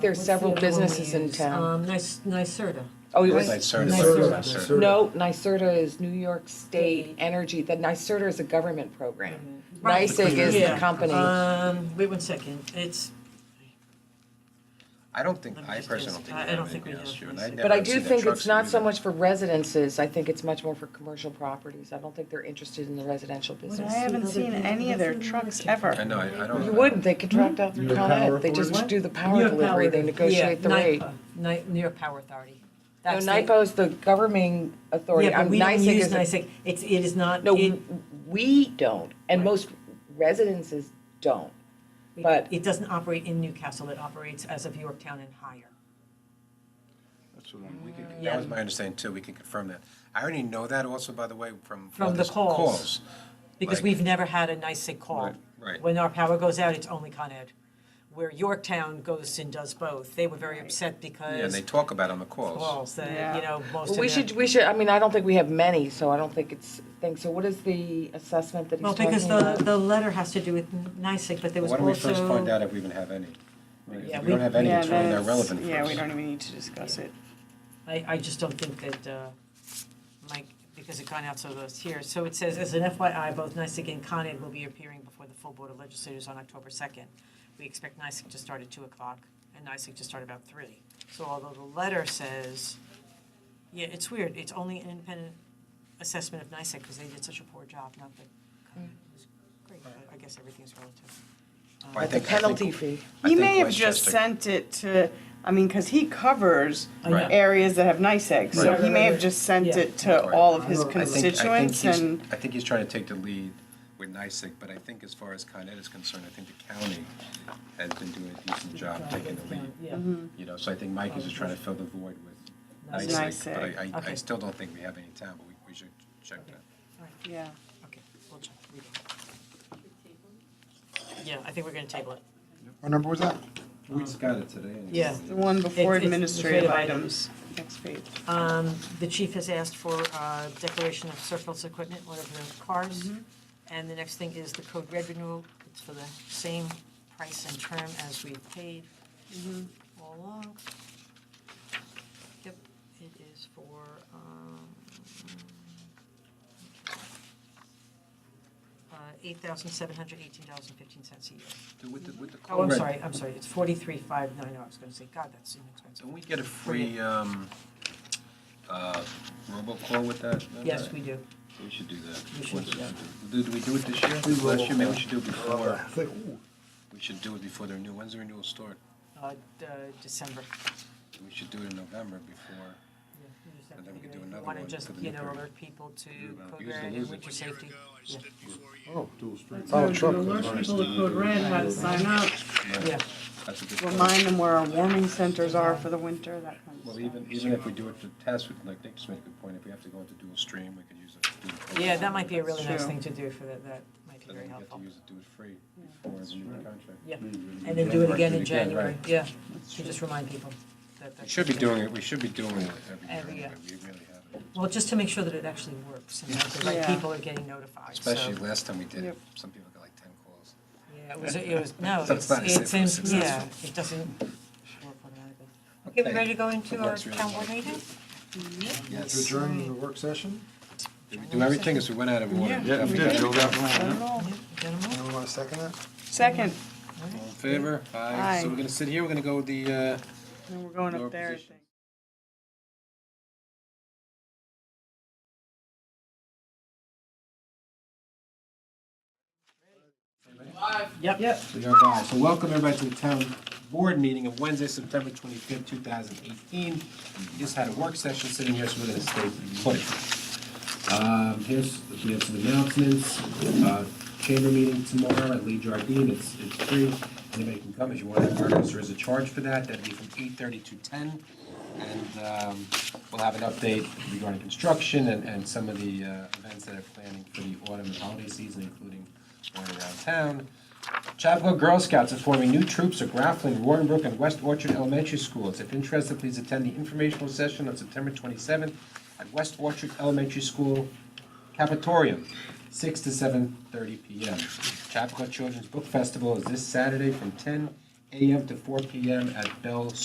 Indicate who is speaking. Speaker 1: There's
Speaker 2: What's
Speaker 1: several
Speaker 2: the other one we
Speaker 1: businesses in
Speaker 2: use?
Speaker 1: town.
Speaker 2: Um, Nic- NYSERDA.
Speaker 1: Oh, it
Speaker 3: Right.
Speaker 1: was,
Speaker 3: NYSERDA.
Speaker 4: NYSERDA.
Speaker 1: no, NYSERDA is New York State
Speaker 2: State. Mm-hmm.
Speaker 1: Energy, the NYSERDA is a government program.
Speaker 2: Right.
Speaker 1: NYSEG is the
Speaker 2: Yeah.
Speaker 1: company.
Speaker 2: Um, wait one second, it's,
Speaker 3: I don't think,
Speaker 2: Let me
Speaker 3: I
Speaker 2: just
Speaker 3: personally
Speaker 2: ask-
Speaker 3: don't think
Speaker 2: I-
Speaker 3: we
Speaker 2: I don't
Speaker 3: have
Speaker 2: think we
Speaker 3: anything else,
Speaker 2: have
Speaker 3: June.
Speaker 2: this.
Speaker 3: I'd
Speaker 1: But
Speaker 3: never
Speaker 1: I do
Speaker 3: seen a
Speaker 1: think
Speaker 3: truck
Speaker 1: it's not
Speaker 3: do
Speaker 1: so
Speaker 3: that.
Speaker 1: much for residences, I think it's much more for commercial properties. I don't think they're interested in the residential
Speaker 5: I
Speaker 1: business.
Speaker 5: haven't seen any of their trucks ever.
Speaker 3: I know, I I don't.
Speaker 1: You wouldn't, they contract out through
Speaker 4: Your
Speaker 1: Con
Speaker 4: power
Speaker 1: Ed, they just
Speaker 4: authority?
Speaker 1: do the
Speaker 2: Your
Speaker 1: power
Speaker 2: Hmm? power
Speaker 1: delivery, they
Speaker 2: authority.
Speaker 1: negotiate the rate.
Speaker 2: NYPA, Ni- New York Power Authority.
Speaker 1: No,
Speaker 2: That's the-
Speaker 1: NIPO is the governing authority,
Speaker 2: Yeah, but
Speaker 1: I'm,
Speaker 2: we don't
Speaker 1: NYSEG
Speaker 2: use
Speaker 1: is a
Speaker 2: NYSEG, it's, it is not,
Speaker 1: No,
Speaker 2: it,
Speaker 1: w- we don't, and
Speaker 2: Right.
Speaker 1: most residences don't. but-
Speaker 2: it doesn't operate in Newcastle, it operates as of Yorktown and higher.
Speaker 3: That's the one. We could-
Speaker 2: Yeah.
Speaker 3: That was my understanding too, we can confirm that. I already know that also, by the way, from.
Speaker 2: From
Speaker 3: all
Speaker 2: the
Speaker 3: these
Speaker 2: calls.
Speaker 3: Calls.
Speaker 2: Because
Speaker 3: Like-
Speaker 2: we've never had a NYSEG call.
Speaker 3: Right, right.
Speaker 2: When our power goes out, it's only Con Ed. Where Yorktown goes and does both, they were very upset
Speaker 3: Yeah, and
Speaker 2: because
Speaker 3: they talk about on the calls.
Speaker 2: calls, that,
Speaker 5: Yeah.
Speaker 2: you know, most of
Speaker 1: Well, we
Speaker 2: them.
Speaker 1: should, we should, I mean, I don't think we have many, so I don't think it's thing, so what is the assessment that he's
Speaker 2: Well,
Speaker 1: talking
Speaker 2: because the,
Speaker 1: about?
Speaker 2: the letter has to do with NICEAG, but there
Speaker 3: Why
Speaker 2: was
Speaker 3: don't we first find
Speaker 2: also,
Speaker 3: out if we even have any? Because
Speaker 2: Yeah,
Speaker 3: If we
Speaker 2: we-
Speaker 3: don't have any,
Speaker 5: Yeah,
Speaker 3: it's really not
Speaker 5: that's-
Speaker 3: relevant for us.
Speaker 5: Yeah, we don't even need to discuss it.
Speaker 2: I, I just don't think that, uh, Mike, because it gone out so those here. So it says, as an FYI, both NICEAG and Con Ed will be appearing before the full Board of Legislators on October 2nd. We expect NICEAG to start at 2 o'clock and NICEAG to start about 3. So although the letter says, yeah, it's weird, it's only an independent assessment of NICEAG because they did such a poor job, not that Con Ed was great, but I guess everything's relative.
Speaker 3: But I
Speaker 1: But The
Speaker 3: think- I think-
Speaker 1: penalty fee,
Speaker 3: I
Speaker 5: He
Speaker 3: think
Speaker 5: may have just
Speaker 3: Westchester-
Speaker 5: sent it to, I mean, because he covers
Speaker 2: I know.
Speaker 3: Right.
Speaker 5: areas that have NICEAG, so
Speaker 3: Right.
Speaker 5: he may have just sent
Speaker 2: Yeah.
Speaker 5: it to all of his
Speaker 4: I think-
Speaker 3: I think- I think
Speaker 5: constituents
Speaker 3: he's-
Speaker 5: and,
Speaker 3: I think he's trying to take the lead with NICEAG, but I think as far as Con Ed is concerned, I think the county has been doing a decent job taking the lead.
Speaker 2: Yeah.
Speaker 5: Mm-hmm.
Speaker 3: You know, so I think Mike is just trying to fill the void with
Speaker 2: Nice.
Speaker 3: NICEAG, but
Speaker 5: NYSEG.
Speaker 3: I- I, I
Speaker 2: Okay.
Speaker 3: still don't think we have any in town, but we, we should check that.
Speaker 5: yeah.
Speaker 2: Okay, we'll check. We don't. Yeah, I think we're gonna table it.
Speaker 4: What number was that?
Speaker 3: We just got it today. and-
Speaker 2: Yeah.
Speaker 5: The one before
Speaker 2: It's- it's
Speaker 5: administrative
Speaker 2: administrative
Speaker 5: items, next page.
Speaker 2: Um, the chief has asked for, uh, declaration of surplus equipment, one of the cars. And the next thing is the code red renewal, it's for the same price and term as we paid all along. Yep, it is for, um, uh, eight thousand seven hundred eighteen dollars and fifteen cents a year.
Speaker 3: With the, with the.
Speaker 2: Oh, I'm
Speaker 3: Colred,
Speaker 2: sorry, I'm sorry, it's forty-three five nine, oh. I was gonna say, God, that's inexpensive.
Speaker 3: Don't we get a free, um, uh, robocall with that? No,
Speaker 2: Yes,
Speaker 3: no.
Speaker 2: we do.
Speaker 3: We should do that.
Speaker 2: We should
Speaker 3: Once
Speaker 2: do
Speaker 3: it's-
Speaker 2: that.
Speaker 3: Do, do we do it this year?
Speaker 4: Free
Speaker 3: Last year, maybe we
Speaker 4: robocall.
Speaker 3: should do it
Speaker 4: I
Speaker 3: before,
Speaker 4: think, ooh,
Speaker 3: we should do it before the renewal, when's the renewal start?
Speaker 2: Uh, d- uh, December.
Speaker 3: We should do it in November before. And then we could do another
Speaker 2: Want to
Speaker 3: one
Speaker 2: just,
Speaker 3: for the
Speaker 2: you
Speaker 3: new
Speaker 2: know,
Speaker 3: period.
Speaker 2: alert people to
Speaker 3: about
Speaker 2: code
Speaker 3: use the
Speaker 2: red and
Speaker 3: losing.
Speaker 2: winter
Speaker 3: One
Speaker 2: safety? Yeah.
Speaker 4: Oh, dual stream. Oh, truck.
Speaker 5: sign up,
Speaker 2: Yeah,
Speaker 3: That's a good point.
Speaker 5: remind them where our warming centers are for the winter, that kind of
Speaker 3: Well,
Speaker 5: stuff.
Speaker 3: even, even if we do it for test, we- like Nick just made a good point, if we have to go into dual stream, we could use a. dual code.
Speaker 2: yeah, that might be a really nice
Speaker 5: Sure.
Speaker 2: thing to do for that, that might be
Speaker 3: And
Speaker 2: very
Speaker 3: then we get
Speaker 2: helpful.
Speaker 3: to use it, do it free before the new contract.
Speaker 2: Yeah,
Speaker 3: Mm-hmm.
Speaker 2: and then do it
Speaker 3: Right,
Speaker 2: again
Speaker 3: do
Speaker 2: in
Speaker 3: it again,
Speaker 2: January,
Speaker 3: right.
Speaker 2: yeah, to just remind people that.
Speaker 3: We
Speaker 2: that's-
Speaker 3: should be doing it, we should be doing it every year
Speaker 2: Every year.
Speaker 3: anyway, we really have it.
Speaker 2: Well, just to make sure that it actually works and that the right
Speaker 5: Yeah.
Speaker 2: people are getting notified, so.
Speaker 3: Especially last time we did, it,
Speaker 5: Yep.
Speaker 3: some people got like ten calls.
Speaker 2: Yeah, it was, it was, no,
Speaker 3: So it's
Speaker 2: it's,
Speaker 3: not as
Speaker 2: it's,
Speaker 3: if it was
Speaker 2: in- yeah,
Speaker 3: successful.
Speaker 2: it doesn't work automatically. Okay, we
Speaker 3: Okay.
Speaker 2: ready to go into
Speaker 3: It
Speaker 2: our
Speaker 3: works really
Speaker 2: town board
Speaker 3: well.
Speaker 2: meeting?
Speaker 4: To
Speaker 3: Yes,
Speaker 4: adjourn the work session?
Speaker 3: did we do everything as we went out of order?
Speaker 4: Yeah, we did, Joe got one.
Speaker 2: Yeah, gentlemen?
Speaker 4: Anyone want to second that?
Speaker 5: Second,
Speaker 3: All in favor? Aye. So
Speaker 5: Aye.
Speaker 3: we're gonna sit here, we're gonna go with the, uh,
Speaker 5: and we're going
Speaker 3: Lower
Speaker 5: up there, I
Speaker 3: positions.
Speaker 5: think.
Speaker 2: Yep.
Speaker 3: We are live. So welcome everybody to the town board meeting of Wednesday, September twenty-fifth, two thousand eighteen. We Just had a work session sitting here, so we're gonna stay put. Um, here's, we have some announcements, uh, chamber meeting tomorrow at Lee Jardine, it's, it's free. Anybody can come if you want, there is a charge for that, that'd be from eight-thirty to ten. And, um, we'll have an update regarding construction and, and some of the, uh, events that are planning for the autumn and holiday season, including one around town. Chapco Girl Scouts is forming new troops at Grafflin, Roaringbrook, and West Orchard Elementary Schools. If interested, please attend the informational session on September 27th at West Orchard Elementary School Capitorium, 6 to 7:30 p.m. Chapco Children's Book Festival is this Saturday from 10 AM to four PM at Bell